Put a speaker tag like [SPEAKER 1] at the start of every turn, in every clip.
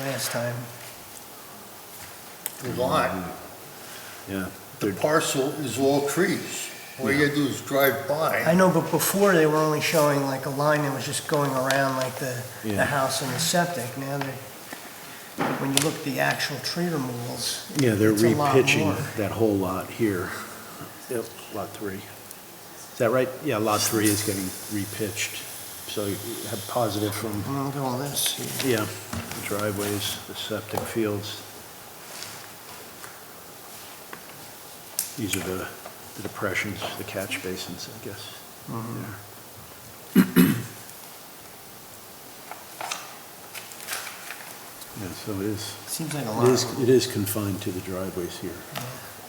[SPEAKER 1] last time. The lot,
[SPEAKER 2] Yeah.
[SPEAKER 3] The parcel is all trees. All you gotta do is drive by.
[SPEAKER 1] I know, but before they were only showing like a line that was just going around like the, the
[SPEAKER 2] Yeah.
[SPEAKER 1] house and the septic. Now they're, when you look at the actual tree removals,
[SPEAKER 2] Yeah, they're
[SPEAKER 1] It's a lot
[SPEAKER 2] repitching
[SPEAKER 1] more.
[SPEAKER 2] that whole lot here. Yep, lot three. Is that right? Yeah, lot three is getting repitched. So you have positive from,
[SPEAKER 1] and look at all this.
[SPEAKER 2] yeah, the driveways, the septic fields. These are the the depressions, the catch basins, I guess.
[SPEAKER 1] Mm-hmm.
[SPEAKER 2] Yeah. Yeah, so it is,
[SPEAKER 1] Seems like a
[SPEAKER 2] it is,
[SPEAKER 1] lot.
[SPEAKER 2] it is confined to the driveways here.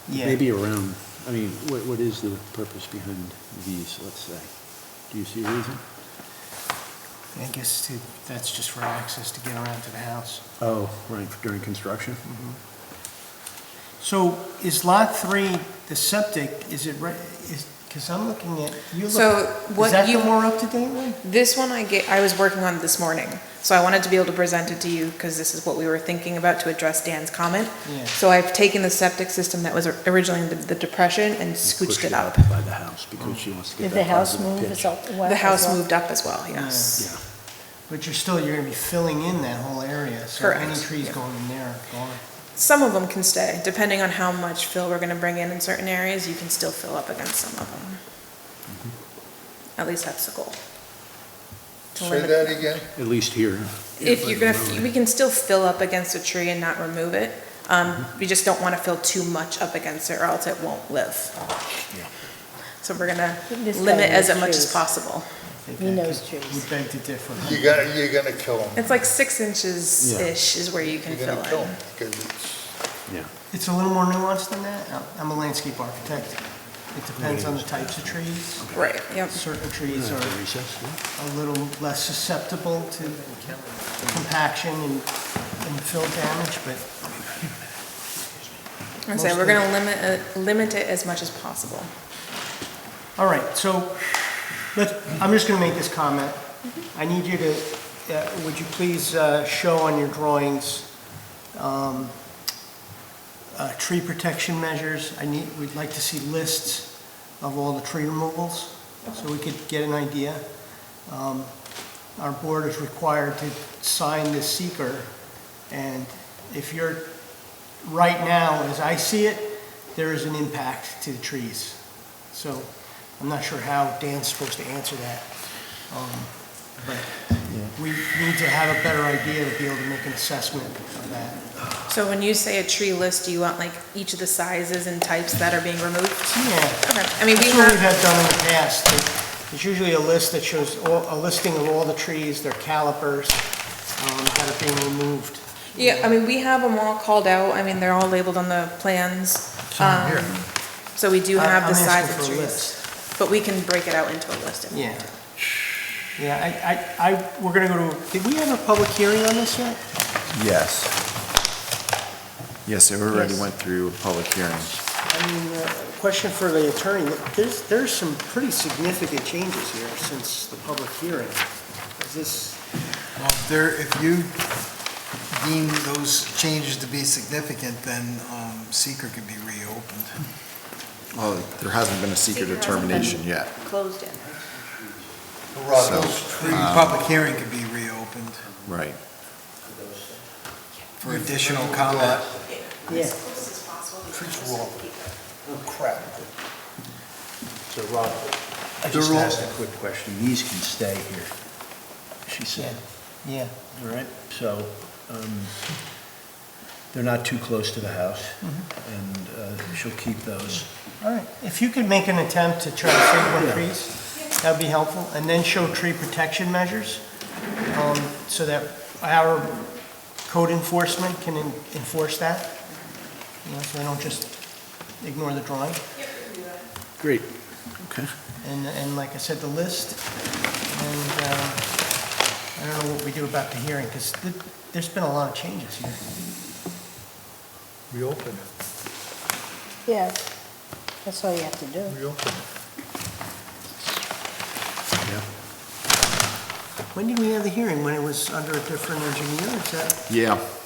[SPEAKER 1] Yeah.
[SPEAKER 2] Maybe around, I mean, what, what is the purpose behind these, let's say? Do you see a reason?
[SPEAKER 1] I guess to- that's just for access to get around to the house.
[SPEAKER 2] Oh, right, during construction?
[SPEAKER 1] So is lot three, the septic, is it right, is, because I'm looking at, you
[SPEAKER 4] So
[SPEAKER 1] look,
[SPEAKER 4] what
[SPEAKER 1] is that the
[SPEAKER 4] you-
[SPEAKER 1] more up-to-date one?
[SPEAKER 4] This one I get, I was working on this morning, so I wanted to be able to present it to you because this is what we were thinking about to address Dan's comment.
[SPEAKER 1] Yeah.
[SPEAKER 4] So I've taken the septic system that was originally in the- the depression and scooched
[SPEAKER 2] Pushed
[SPEAKER 4] it up.
[SPEAKER 2] By the house, because she wants to
[SPEAKER 5] Did
[SPEAKER 2] get
[SPEAKER 5] the
[SPEAKER 2] that
[SPEAKER 5] house
[SPEAKER 2] positive
[SPEAKER 5] move
[SPEAKER 2] pitch.
[SPEAKER 5] as up- well?
[SPEAKER 4] The
[SPEAKER 5] as
[SPEAKER 4] house
[SPEAKER 5] well?
[SPEAKER 4] moved up as well, yes.
[SPEAKER 2] Yeah,
[SPEAKER 1] But you're still, you're gonna be filling in that whole area, so
[SPEAKER 4] Correct,
[SPEAKER 1] any trees
[SPEAKER 4] yeah.
[SPEAKER 1] going in there are gone.
[SPEAKER 4] Some of them can stay, depending on how much fill we're gonna bring in in certain areas, you can still fill up against some of them. At least that's the goal. To
[SPEAKER 3] Say
[SPEAKER 4] limit-
[SPEAKER 3] that again?
[SPEAKER 2] at least here.
[SPEAKER 4] If you're gonna, we can still fill up against a tree and not remove it. Um,
[SPEAKER 3] Mm-hmm.
[SPEAKER 4] we just don't wanna fill too much up against it or else it won't live. So we're gonna
[SPEAKER 5] This guy
[SPEAKER 4] limit as
[SPEAKER 5] knows
[SPEAKER 4] much as
[SPEAKER 5] trees.
[SPEAKER 4] possible.
[SPEAKER 1] I think
[SPEAKER 5] He
[SPEAKER 1] I
[SPEAKER 5] knows
[SPEAKER 1] could-
[SPEAKER 5] trees.
[SPEAKER 1] We beg to differ.
[SPEAKER 3] You gotta, you're gonna kill them.
[SPEAKER 4] It's like six inches-ish is where you can
[SPEAKER 3] You're
[SPEAKER 4] fill
[SPEAKER 3] gonna kill
[SPEAKER 4] in.
[SPEAKER 3] them. it's,
[SPEAKER 2] Yeah,
[SPEAKER 1] It's a little more nuanced than that. I'm- I'm a landscape architect. It depends on the types of trees.
[SPEAKER 4] Right, yep.
[SPEAKER 1] Certain trees
[SPEAKER 2] After
[SPEAKER 1] are
[SPEAKER 2] recess, yeah.
[SPEAKER 1] a little less susceptible to compaction and, and fill damage, but
[SPEAKER 4] I say, we're gonna limit, it- limit it as much as possible.
[SPEAKER 1] All right, so, let, I'm just gonna make this comment. I need you to, uh, would you please, uh, show on your drawings, um, uh, tree protection measures? I need, we'd like to see lists of all the tree removals, so we could get an idea. Um, Our board is required to sign this seeker, and if you're, right now, as I see it, there is an impact to the trees. So I'm not sure how Dan's supposed to answer that. Um, But we need to have a better idea to be able to make an assessment of that.
[SPEAKER 4] So when you say a tree list, do you want like each of the sizes and types that are being removed?
[SPEAKER 1] Yeah,
[SPEAKER 4] Okay, I mean, we
[SPEAKER 1] that's what we've
[SPEAKER 4] have,
[SPEAKER 1] had done in the past. There's usually a list that shows, all- a listing of all the trees, their calipers, um, that are being removed.
[SPEAKER 4] yeah, I mean, we have them all called out. I mean, they're all labeled on the plans. Um, So we do
[SPEAKER 1] I-
[SPEAKER 4] have the
[SPEAKER 1] I'm
[SPEAKER 4] size
[SPEAKER 1] asking
[SPEAKER 4] of
[SPEAKER 1] for a
[SPEAKER 4] trees.
[SPEAKER 1] list.
[SPEAKER 4] But we can break it out into a list. if-
[SPEAKER 1] Yeah. Yeah, I, I, I, we're gonna go to, did we have a public hearing on this yet?
[SPEAKER 6] Yes. Yes, it already
[SPEAKER 1] Yes.
[SPEAKER 6] went through a public hearing.
[SPEAKER 1] I mean, uh, question for the attorney, there's, there's some pretty significant changes here since the public hearing. Is this,
[SPEAKER 7] Well, if there, if you deem those changes to be significant, then um, seeker could be reopened.
[SPEAKER 6] Well, there hasn't been a secret
[SPEAKER 4] Secret hasn't been-
[SPEAKER 6] determination yet.
[SPEAKER 4] Closed in.
[SPEAKER 3] Rob,
[SPEAKER 6] So-
[SPEAKER 3] those trees,
[SPEAKER 7] Public hearing could be reopened
[SPEAKER 6] Right.
[SPEAKER 7] for additional comment.
[SPEAKER 1] yeah,
[SPEAKER 4] close as possible.
[SPEAKER 3] trees were all crap.
[SPEAKER 2] So Rob, I just
[SPEAKER 3] They're all-
[SPEAKER 2] asked a quick question. These can stay here, she said.
[SPEAKER 1] yeah.
[SPEAKER 2] All right, so, um, they're not too close to the house, and uh, she'll keep those.
[SPEAKER 1] All right, if you could make an attempt to try to save more trees, that'd be helpful, and then show tree protection measures, um, so that our code enforcement can en- enforce that. You know, so they don't just ignore the drawing.
[SPEAKER 2] Great. Okay.
[SPEAKER 1] And, and like I said, the list, and uh, I don't know what we do about the hearing, because there's been a lot of changes here.
[SPEAKER 3] Reopen
[SPEAKER 5] Yeah, that's all you have to do.
[SPEAKER 3] it, reopen it.
[SPEAKER 2] Yeah.
[SPEAKER 1] When did we have the hearing? When it was under a different engineer? Is that,
[SPEAKER 6] Yeah,